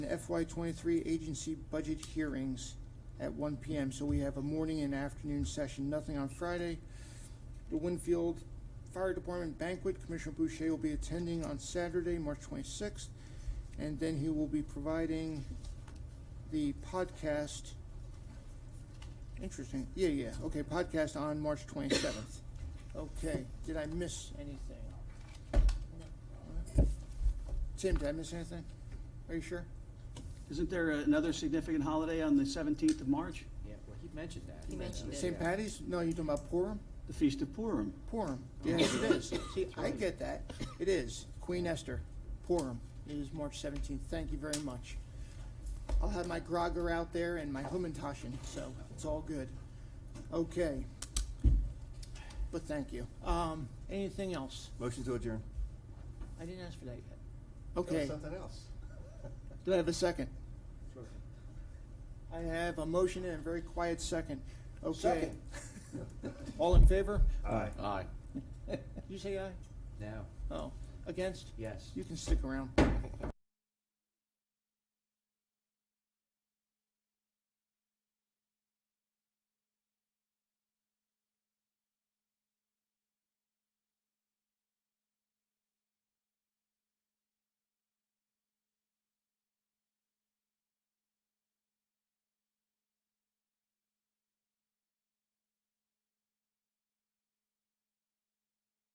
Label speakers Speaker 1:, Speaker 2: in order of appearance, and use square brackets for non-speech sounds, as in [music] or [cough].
Speaker 1: FY twenty-three agency budget hearings at one PM, so we have a morning and afternoon session, nothing on Friday. The Winfield Fire Department banquet, Commissioner Boucher will be attending on Saturday, March twenty-sixth, and then he will be providing the podcast. Interesting, yeah, yeah, okay, podcast on March twenty-seventh. Okay, did I miss anything? Tim, did I miss anything? Are you sure?
Speaker 2: Isn't there another significant holiday on the 17th of March?
Speaker 3: Yeah, well, he mentioned that.
Speaker 4: He mentioned it.
Speaker 1: St. Patty's? No, you're talking about Purim?
Speaker 2: The Feast of Purim.
Speaker 1: Purim. Yes, it
Speaker 3: [laughs]
Speaker 1: is. See, I get that. It is. Queen Esther, Purim. It is March seventeenth. Thank you very much. I'll have my grogger out there and my Hummintashen, so it's all good. Okay. But thank you. Um, anything else?
Speaker 5: Motion to adjourn.
Speaker 3: I didn't ask for that yet.
Speaker 1: Okay.
Speaker 5: Something else.
Speaker 1: Do I have a second? I have a motion and a very quiet second. Okay.
Speaker 5: Second.
Speaker 1: All in favor?
Speaker 5: Aye.
Speaker 3: Aye.
Speaker 1: You say aye?
Speaker 3: Now,
Speaker 1: Oh, against?
Speaker 3: yes.
Speaker 1: You can stick around.